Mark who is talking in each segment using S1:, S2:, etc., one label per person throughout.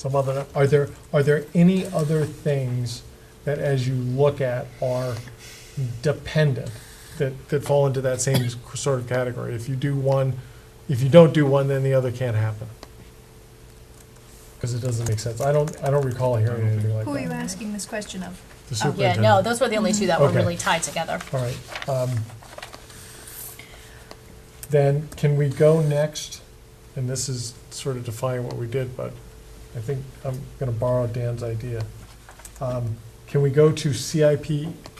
S1: some other, are there, are there any other things that as you look at are dependent, that, that fall into that same sort of category? If you do one, if you don't do one, then the other can't happen. Because it doesn't make sense. I don't, I don't recall hearing anything like that.
S2: Who are you asking this question of?
S1: The
S2: Oh,
S3: Yeah, no,
S1: superintendent.
S3: those were the only two that were
S1: Okay.
S3: really tied together.
S1: All right. um, Then, can we go next? And this is sort of defying what we did, but I think I'm going to borrow Dan's idea. Um, Can we go to CIP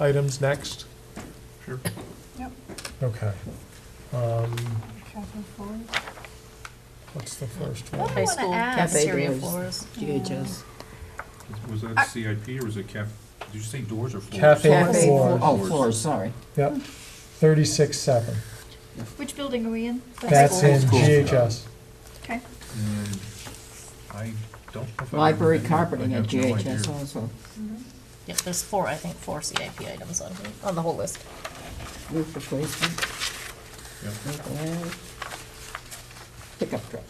S1: items next?
S4: Sure.
S2: Yep.
S1: Okay. Um,
S2: Capital forward?
S1: What's the first
S2: What
S1: one?
S2: do I
S3: High
S2: want to
S3: school
S2: ask?
S3: cafe
S5: Exterior
S3: doors.
S5: floors.
S2: GHS.
S4: Was
S2: I-
S4: that CIP or was it cap, did you say doors or floors?
S1: Cafe
S5: Cafe
S1: floor.
S5: floor, oh, floors, sorry.
S1: Yep, 36.7.
S2: Which building are we in?
S1: That's in
S4: School.
S1: GHS.
S2: Okay.
S4: And I don't. know if I
S5: Library
S4: remember. I
S5: carpeting at
S4: have no idea.
S5: GHS also.
S3: Yep, there's four, I think, four CIP items on, on the whole list.
S5: Roof replacement,
S4: Yep.
S5: local area. Pickup truck.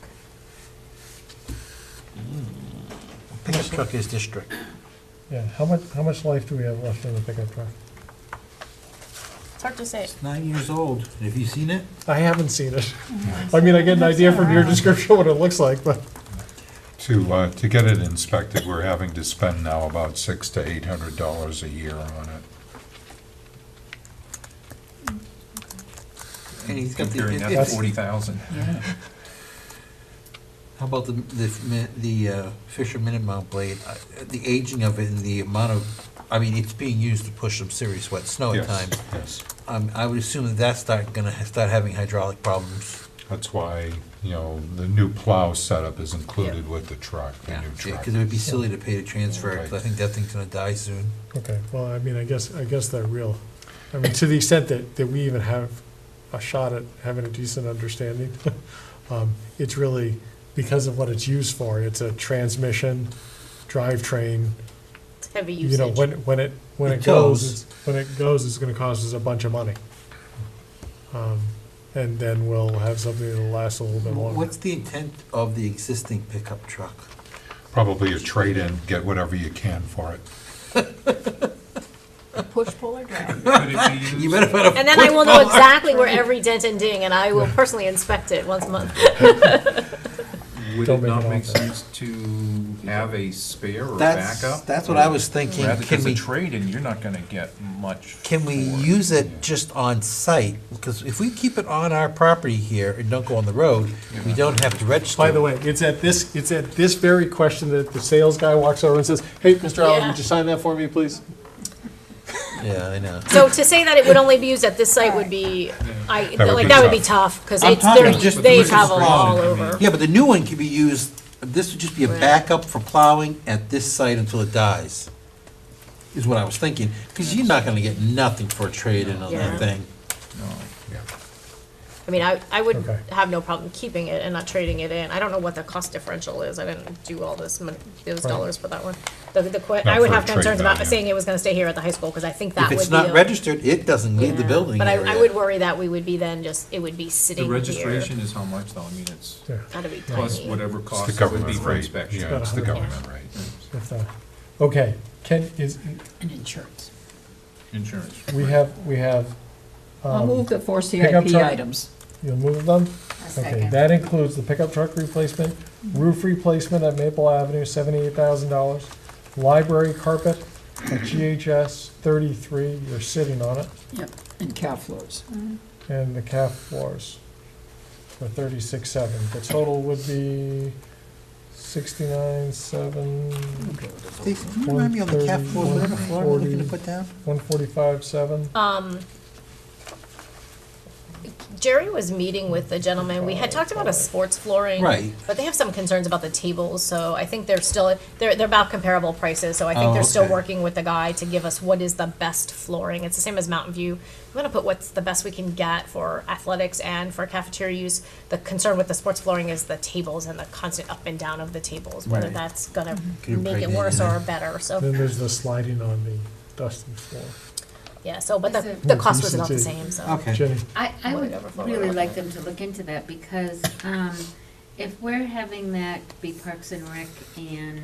S6: Pickup truck is district.
S1: Yeah, how much, how much life do we have left in the pickup truck?
S3: It's hard to say.
S6: Nine years old. Have you seen it?
S1: I haven't seen it. I mean, I get an idea from your description what it looks like, but
S7: To, uh, to get it inspected, we're having to spend now about six to eight hundred dollars a year on it.
S6: And he's got the.
S4: Comparing
S6: it-
S4: that
S6: it's-
S4: to forty thousand.
S6: How about the, the, mi- the uh, Fisherman and Mount Blade, I- the aging of it and the amount of, I mean, it's being used to push some serious wet snow
S7: Yes,
S6: at times.
S7: Yes,
S6: Um, I would assume that that's not gonna ha- start having hydraulic problems.
S7: that's why, you know, the new plow setup is included with the truck, the new truck.
S6: Because it would be silly to pay to transfer, because I
S7: Right.
S6: think that thing's gonna die soon.
S1: Okay, well, I mean, I guess, I guess they're real. I mean, to the extent that, that we even have a shot at having a decent understanding, um, it's really because of what it's used for. It's a transmission, drivetrain,
S3: It's heavy
S1: you know,
S3: usage.
S1: when, when it, when
S6: It
S1: it goes,
S6: goes.
S1: it's- when it goes, it's gonna cost us a bunch of money. Um, And then we'll have something that'll last a little bit longer.
S6: What's the intent of the existing pickup truck?
S7: Probably a trade-in, get whatever you can for it.
S2: Push, pull, or drag?
S4: Could it be
S6: You
S4: used?
S6: better find a
S3: And then I will know exactly where every dent and ding, and I will personally inspect it once a month.
S4: Would
S1: Don't
S4: it
S1: make
S4: not
S1: it
S4: make
S1: awful.
S4: sense to have a spare or
S6: That's,
S4: backup?
S6: that's what I was thinking.
S4: Rather,
S6: Can
S4: because a
S6: we,
S4: trade-in, you're not gonna get much.
S6: can we
S4: for it.
S6: use it just on site? Because if we keep it on our property here and don't go on the road, we don't have to register.
S1: By the
S6: it.
S1: way, it's at this, it's at this very question that the sales guy walks over and says, hey, Mr. Allen,
S3: Yeah.
S1: would you sign that for me, please?
S6: Yeah, I know.
S3: So to say that it would only be used at this site would be, I,
S7: That would
S3: like,
S7: be
S3: that would be
S7: tough.
S3: tough, because
S6: I'm
S3: it's,
S6: talking
S3: they're-
S6: just-
S3: they
S6: this is
S3: travel all
S4: wrong, I mean.
S3: over.
S6: Yeah, but the new one can be used, this would just be a
S3: Right.
S6: backup for plowing at this site until it dies, is what I was thinking. Because you're not gonna get nothing for a trade-in on
S3: Yeah.
S6: that thing.
S4: No.
S3: I mean, I, I would
S1: Okay.
S3: have no problem keeping it and not trading it in. I don't know what the cost differential is. I didn't do all this, mon- those
S1: Right.
S3: dollars for that one. The, the, que-
S7: Not
S3: I would
S7: for
S3: have
S7: trade
S3: concerns about
S7: value.
S3: saying it was gonna stay here at the high school, because I think that
S6: If
S3: would be.
S6: it's not
S3: a-
S6: registered, it doesn't leave the
S3: Yeah.
S6: building
S3: But I, I
S6: area.
S3: would worry that we would be then just, it would be sitting
S4: The
S3: here.
S4: registration is how much though? I mean, it's
S1: Yeah.
S3: Gotta be
S4: plus
S3: tiny.
S4: whatever
S7: It's
S4: cost
S7: the
S4: it would be
S7: government
S4: for
S7: rate,
S4: inspection.
S7: yeah, it's the
S1: About a
S7: government rate.
S1: If that- Okay, Ken, is,
S5: And insurance.
S4: Insurance.
S1: we have, we have,
S5: I'll
S1: um,
S5: move the four
S1: pickup
S5: CIP
S1: truck.
S5: items.
S1: you move them? Okay,
S5: second.
S1: that includes the pickup truck replacement, roof replacement at Maple Avenue, seventy-eight thousand dollars, library carpet at GHS, thirty-three, you're sitting on it,
S5: Yep. And cow floors.
S1: and the calf floors for thirty-six seven. The total would be sixty-nine, seven,
S6: They- can you Remind me on the cap floor, whatever floor we're looking to
S1: 130,
S6: put down?
S1: one forty-five, seven.
S3: Um, Jerry was meeting with the gentleman. We had talked about a sports flooring.
S6: Right.
S3: But they have some concerns about the tables, so I think they're still, they're, they're about comparable prices, so I
S6: Oh,
S3: think they're still
S6: okay.
S3: working with the guy to give us what is the best flooring. It's the same as Mountain View. I'm gonna put what's the best we can get for athletics and for cafeteria use. The concern with the sports flooring is the tables and the constant up and down of the tables, whether
S6: Right.
S3: that's gonna
S6: Could
S3: make it
S6: impregnate
S3: worse
S6: it.
S3: or better, so,
S1: Then there's the sliding on the dusting floor.
S3: yeah, so, but the,
S8: Is it-
S3: the cost was about the
S1: Consistency.
S3: same, so.
S6: Okay.
S1: Jenny?
S8: I, I
S3: Might
S8: would
S3: overflow a
S8: really
S3: little
S8: like
S3: bit.
S8: them to look into that because um, if we're having that be Parks and Rec and